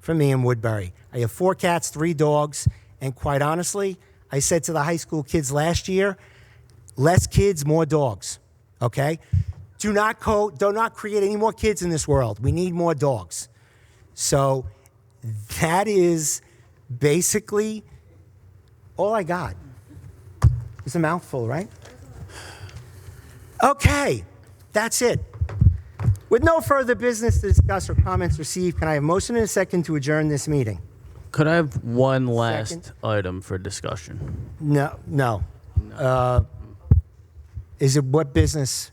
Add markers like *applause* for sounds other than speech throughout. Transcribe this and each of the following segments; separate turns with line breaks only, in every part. for me in Woodbury. I have four cats, three dogs, and quite honestly, I said to the high school kids last year, less kids, more dogs. Okay? Do not co- do not create any more kids in this world. We need more dogs. So that is basically all I got. It's a mouthful, right? Okay, that's it. With no further business to discuss or comments received, can I have motion and a second to adjourn this meeting?
Could I have one last item for discussion?
No, no. Uh, Is it what business?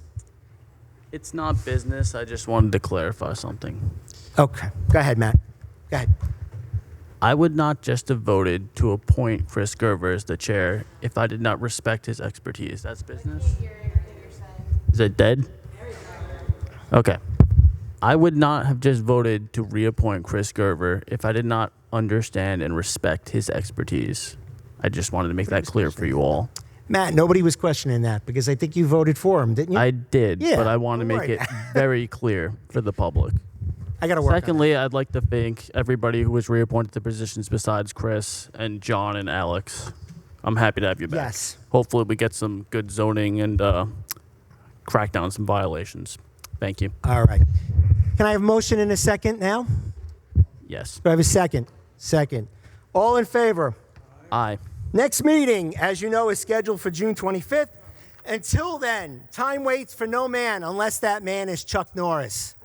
It's not business. I just wanted to clarify something.
Okay, go ahead, Matt. Go ahead.
I would not just have voted to appoint Chris Gerver as the chair if I did not respect his expertise. That's business. Is it dead? Okay. I would not have just voted to reappoint Chris Gerver if I did not understand and respect his expertise. I just wanted to make that clear for you all.
Matt, nobody was questioning that because I think you voted for him, didn't you?
I did,
Yeah,
but I want to
don't
make
worry.
it very clear for the *laughs* public.
I got to work on it.
Secondly, I'd like to thank everybody who was reappointed to positions besides Chris and John and Alex. I'm happy to have you back.
Yes.
Hopefully, we get some good zoning and uh, crack down some violations. Thank you.
All right. Can I have motion in a second now?
Yes.
Do I have a second? Second. All in favor?
Aye.
Next meeting, as you know, is scheduled for June 25th. Until then, time waits for no man unless that man is Chuck Norris.